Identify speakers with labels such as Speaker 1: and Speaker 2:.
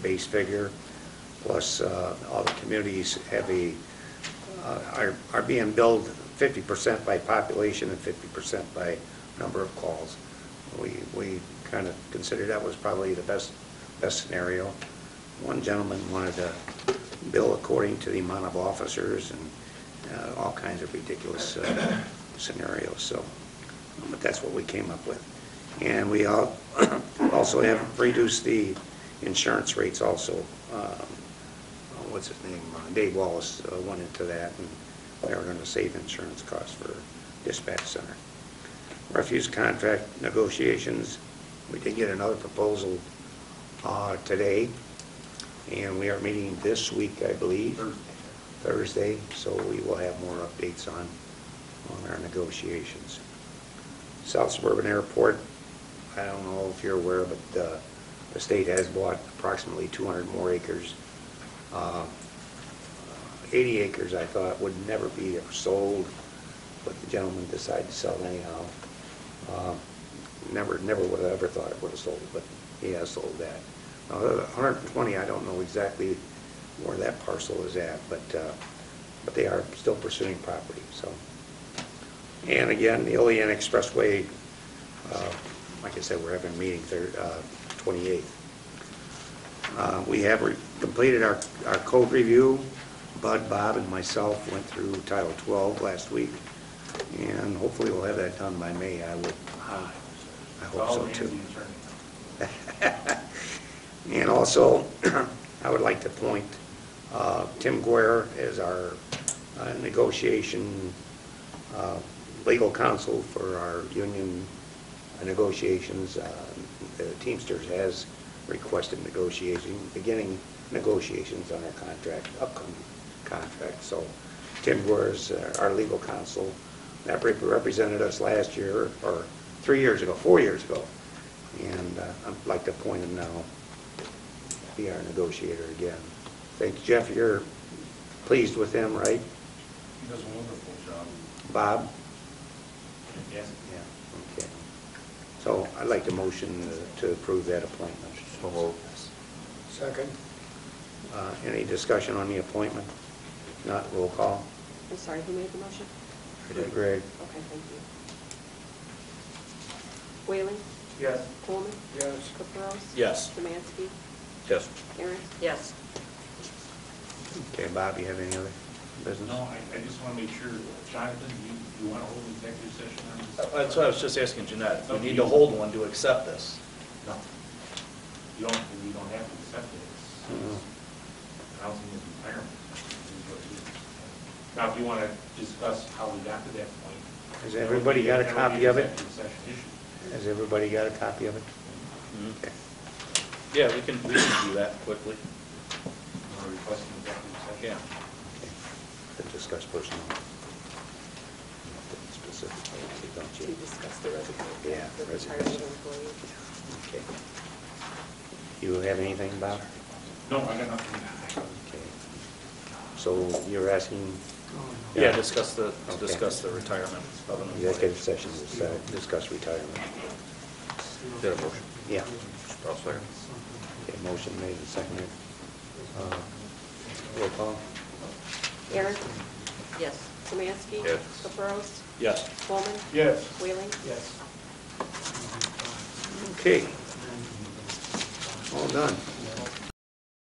Speaker 1: base figure, plus uh, all the communities have a, uh, are are being billed 50% by population and 50% by number of calls. We, we kind of considered that was probably the best, best scenario. One gentleman wanted to bill according to the amount of officers and uh, all kinds of ridiculous uh, scenarios, so, but that's what we came up with. And we al- also have reduced the insurance rates also. Um, What's his name, Uh, Dave Wallace uh, went into that, and they were going to save insurance costs for dispatch center. Refuse contract negotiations, we did get another proposal uh, today, and we are meeting this week, I believe. Thursday, so we will have more updates on, on our negotiations. South Suburban Airport, I don't know if you're aware, but uh, the state has bought approximately 200 more acres. Uh, 80 acres, I thought, would never be sold, but the gentleman decided to sell anyhow. Uh, Never, never would have ever thought it would have sold, but he has sold that. Now, the 120, I don't know exactly where that parcel is at, but, uh, but they are still pursuing property, so. And again, the Olean Expressway, uh, like I said, we're having a meeting there, uh, 28th. Uh, We have re- completed our, our code review. Bud, Bob, and myself went through Title 12 last week, and hopefully we'll have that done by May. I would,
Speaker 2: Ah,
Speaker 1: I hope so, too.
Speaker 2: It's all Ramsey attorney.
Speaker 1: And also, I would like to point uh, Tim Guer as our uh, negotiation uh, legal counsel for our union negotiations. Uh, The Teamsters has requested negotiation, beginning negotiations on our contract, upcoming contract. So Tim Guer is uh, our legal counsel. That rep- represented us last year, or three years ago, four years ago. And uh, I'd like to appoint him now, to be our negotiator again. Thank you, Jeff, you're pleased with him, right?
Speaker 2: He does a wonderful job.
Speaker 1: Bob?
Speaker 2: Yes.
Speaker 1: Yeah, okay. So I'd like to motion to approve that appointment.
Speaker 2: Second.
Speaker 1: Uh, Any discussion on the appointment? Not roll call?
Speaker 3: I'm sorry, who made the motion?
Speaker 1: Greg?
Speaker 3: Okay, thank you. Whaling,
Speaker 2: Yes.
Speaker 3: Coleman,
Speaker 2: Yes.
Speaker 3: Caprows.
Speaker 4: Yes.
Speaker 3: Szymanski,
Speaker 4: Yes.
Speaker 3: Aaron.
Speaker 5: Yes.
Speaker 1: Okay, Bob, you have any other business?
Speaker 2: No, I, I just want to make sure, Jonathan, you, you want to hold an executive session on this?
Speaker 4: Uh, That's what I was just asking Jeanette, we need to hold one to accept this.
Speaker 2: No. You don't, you don't have to accept it.
Speaker 1: Mm.
Speaker 2: It's Housing is retirement. It's what it is. Now, if you want to discuss how we got to that point.
Speaker 1: Has everybody got a
Speaker 2: that would
Speaker 1: copy
Speaker 2: be
Speaker 1: of it?
Speaker 2: executive session issue.
Speaker 1: Has everybody got a copy of it?
Speaker 2: Mm-hmm.
Speaker 1: Okay.
Speaker 4: Yeah, we can, we can do that quickly.
Speaker 2: You wanna request an executive session?
Speaker 4: Yeah.
Speaker 1: To discuss personnel. Specifically, don't
Speaker 3: To
Speaker 1: you?
Speaker 3: discuss the resignation.
Speaker 1: Yeah,
Speaker 3: The retirement
Speaker 1: resignation.
Speaker 3: employee.
Speaker 1: Okay. You have anything, Bob?
Speaker 2: No, I got nothing.
Speaker 1: Okay. So you're asking?
Speaker 4: Yeah, discuss the, to
Speaker 1: Okay.
Speaker 4: discuss the retirement of an employee.
Speaker 1: Executive session to uh, discuss retirement.
Speaker 4: Get a motion.
Speaker 1: Yeah.
Speaker 4: I'll second.
Speaker 1: Okay, motion made and seconded. Uh, Roll call?
Speaker 3: Aaron,
Speaker 5: Yes.
Speaker 3: Szymanski.
Speaker 4: Yes.
Speaker 3: Caprows,
Speaker 4: Yes.
Speaker 3: Coleman,
Speaker 2: Yes.
Speaker 3: Whaling.
Speaker 2: Yes.
Speaker 1: Okay. All done.